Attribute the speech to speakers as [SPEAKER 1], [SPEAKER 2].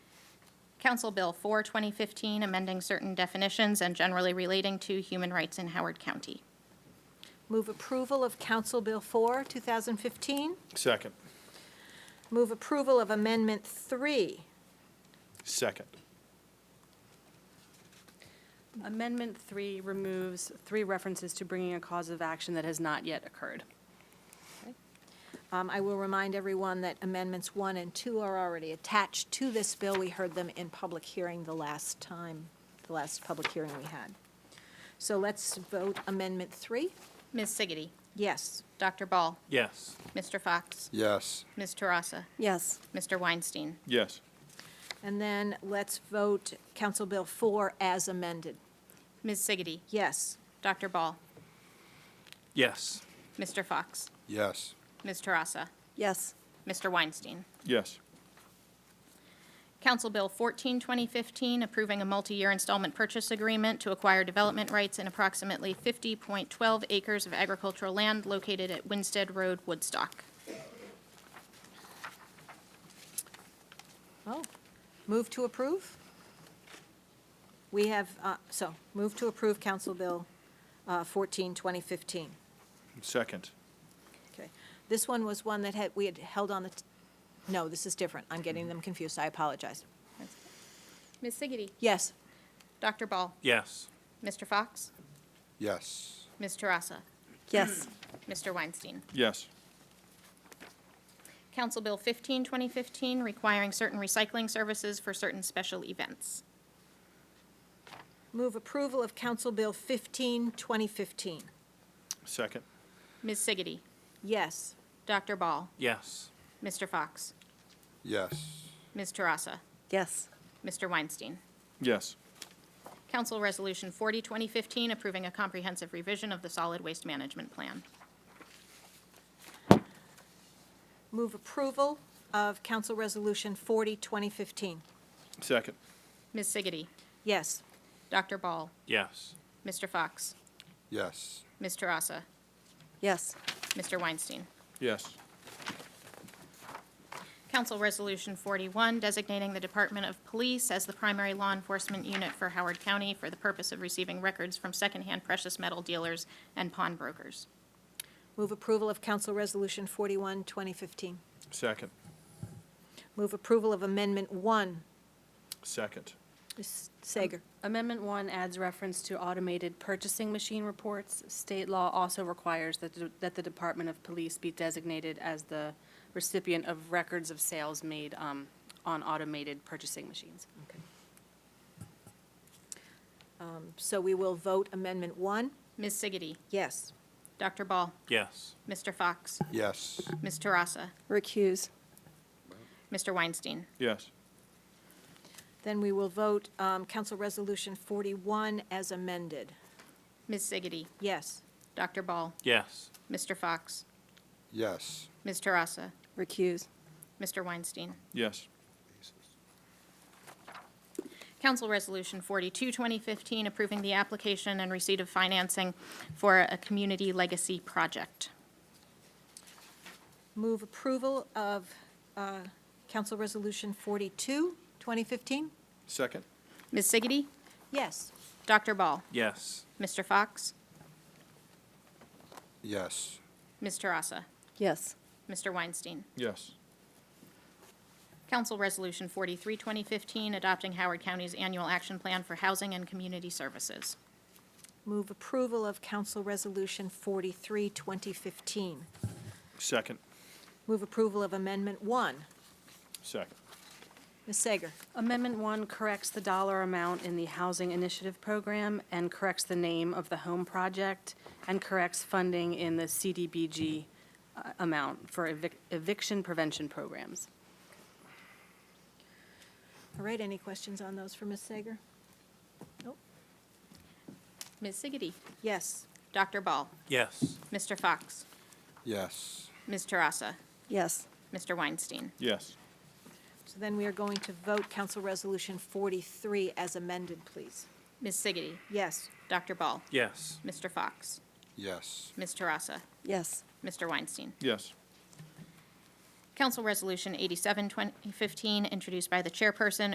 [SPEAKER 1] Council Bill 4, 2015, amending certain definitions and generally relating to human rights in Howard County.
[SPEAKER 2] Move approval of Council Bill 4, 2015.
[SPEAKER 3] Second.
[SPEAKER 2] Move approval of Amendment 3.
[SPEAKER 3] Second.
[SPEAKER 4] Amendment 3 removes three references to bringing a cause of action that has not yet occurred.
[SPEAKER 2] Um, I will remind everyone that Amendments 1 and 2 are already attached to this bill. We heard them in public hearing the last time, the last public hearing we had. So let's vote Amendment 3.
[SPEAKER 1] Ms. Siggety.
[SPEAKER 2] Yes.
[SPEAKER 1] Dr. Ball.
[SPEAKER 3] Yes.
[SPEAKER 1] Mr. Fox.
[SPEAKER 5] yes,
[SPEAKER 1] Ms. Tarassa.
[SPEAKER 4] Yes.
[SPEAKER 1] Mr. Weinstein.
[SPEAKER 3] Yes.
[SPEAKER 2] And then let's vote Council Bill 4 as amended.
[SPEAKER 1] Ms. Siggety.
[SPEAKER 2] Yes.
[SPEAKER 1] Dr. Ball.
[SPEAKER 3] Yes.
[SPEAKER 1] Mr. Fox.
[SPEAKER 5] yes,
[SPEAKER 1] Ms. Tarassa.
[SPEAKER 4] Yes.
[SPEAKER 1] Mr. Weinstein.
[SPEAKER 3] Yes.
[SPEAKER 1] Council Bill 14, 2015, approving a multi-year installment purchase agreement to acquire development rights in approximately 50.12 acres of agricultural land located at Winstead Road, Woodstock.
[SPEAKER 2] Oh, move to approve? We have, uh, so, move to approve Council Bill uh, 14, 2015.
[SPEAKER 3] Second.
[SPEAKER 2] Okay. This one was one that had, we had held on the, t- no, this is different. I'm getting them confused. I apologize.
[SPEAKER 1] Ms. Siggety.
[SPEAKER 2] Yes,
[SPEAKER 1] Dr. Ball.
[SPEAKER 3] Yes.
[SPEAKER 1] Mr. Fox.
[SPEAKER 5] yes,
[SPEAKER 1] Ms. Tarassa.
[SPEAKER 4] Yes.
[SPEAKER 1] Mr. Weinstein.
[SPEAKER 3] Yes.
[SPEAKER 1] Council Bill 15, 2015, requiring certain recycling services for certain special events.
[SPEAKER 2] move approval of Council Bill 15, 2015.
[SPEAKER 3] Second.
[SPEAKER 1] Ms. Siggety.
[SPEAKER 2] Yes,
[SPEAKER 1] Dr. Ball.
[SPEAKER 3] Yes.
[SPEAKER 1] Mr. Fox.
[SPEAKER 5] yes,
[SPEAKER 1] Ms. Tarassa.
[SPEAKER 4] Yes.
[SPEAKER 1] Mr. Weinstein.
[SPEAKER 3] Yes.
[SPEAKER 1] Council Resolution 40, 2015, approving a comprehensive revision of the solid waste management plan.
[SPEAKER 2] move approval of Council Resolution 40, 2015.
[SPEAKER 3] Second.
[SPEAKER 1] Ms. Siggety.
[SPEAKER 2] Yes,
[SPEAKER 1] Dr. Ball.
[SPEAKER 3] Yes.
[SPEAKER 1] Mr. Fox.
[SPEAKER 5] yes,
[SPEAKER 1] Ms. Tarassa.
[SPEAKER 4] Yes.
[SPEAKER 1] Mr. Weinstein.
[SPEAKER 3] Yes.
[SPEAKER 1] Council Resolution 41, designating the Department of Police as the primary law enforcement unit for Howard County for the purpose of receiving records from secondhand precious metal dealers and pawnbrokers.
[SPEAKER 2] move approval of Council Resolution 41, 2015.
[SPEAKER 3] Second.
[SPEAKER 2] Move approval of Amendment 1.
[SPEAKER 3] Second.
[SPEAKER 2] Ms. Sager.
[SPEAKER 4] Amendment 1 adds reference to automated purchasing machine reports. State law also requires that the- that the Department of Police be designated as the recipient of records of sales made um, on automated purchasing machines.
[SPEAKER 2] Um, So we will vote Amendment 1.
[SPEAKER 1] Ms. Siggety.
[SPEAKER 2] Yes.
[SPEAKER 1] Dr. Ball.
[SPEAKER 3] Yes.
[SPEAKER 1] Mr. Fox.
[SPEAKER 5] yes,
[SPEAKER 1] Ms. Tarassa.
[SPEAKER 4] Recuse.
[SPEAKER 1] Mr. Weinstein.
[SPEAKER 3] Yes.
[SPEAKER 2] Then we will vote um, Council Resolution 41 as amended.
[SPEAKER 1] Ms. Siggety.
[SPEAKER 2] Yes.
[SPEAKER 1] Dr. Ball.
[SPEAKER 3] Yes.
[SPEAKER 1] Mr. Fox.
[SPEAKER 5] yes,
[SPEAKER 1] Ms. Tarassa.
[SPEAKER 4] Recuse.
[SPEAKER 1] Mr. Weinstein.
[SPEAKER 3] Yes.
[SPEAKER 1] Council Resolution 42, 2015, approving the application and receipt of financing for a community legacy project.
[SPEAKER 2] Move approval of uh, Council Resolution 42, 2015?
[SPEAKER 3] Second.
[SPEAKER 1] Ms. Siggety.
[SPEAKER 2] Yes.
[SPEAKER 1] Dr. Ball.
[SPEAKER 3] Yes.
[SPEAKER 1] Mr. Fox.
[SPEAKER 5] yes,
[SPEAKER 1] Ms. Tarassa.
[SPEAKER 4] Yes.
[SPEAKER 1] Mr. Weinstein.
[SPEAKER 3] Yes.
[SPEAKER 1] Council Resolution 43, 2015, adopting Howard County's annual action plan for housing and community services.
[SPEAKER 2] Move approval of Council Resolution 43, 2015.
[SPEAKER 3] Second.
[SPEAKER 2] Move approval of Amendment 1.
[SPEAKER 3] Second.
[SPEAKER 2] Ms. Sager.
[SPEAKER 4] Amendment 1 corrects the dollar amount in the Housing Initiative Program and corrects the name of the home project and corrects funding in the CDBG uh, amount for evic- eviction prevention programs.
[SPEAKER 2] All right, any questions on those for Ms. Sager?
[SPEAKER 1] Ms. Siggety.
[SPEAKER 2] Yes.
[SPEAKER 1] Dr. Ball.
[SPEAKER 3] Yes.
[SPEAKER 1] Mr. Fox.
[SPEAKER 5] yes,
[SPEAKER 1] Ms. Tarassa.
[SPEAKER 4] Yes.
[SPEAKER 1] Mr. Weinstein.
[SPEAKER 3] Yes.
[SPEAKER 2] So then we are going to vote Council Resolution 43 as amended, please.
[SPEAKER 1] Ms. Siggety.
[SPEAKER 2] Yes.
[SPEAKER 1] Dr. Ball.
[SPEAKER 3] Yes.
[SPEAKER 1] Mr. Fox.
[SPEAKER 5] yes,
[SPEAKER 1] Ms. Tarassa.
[SPEAKER 4] Yes.
[SPEAKER 1] Mr. Weinstein.
[SPEAKER 3] Yes.
[SPEAKER 1] Council Resolution 87, 2015, introduced by the chairperson,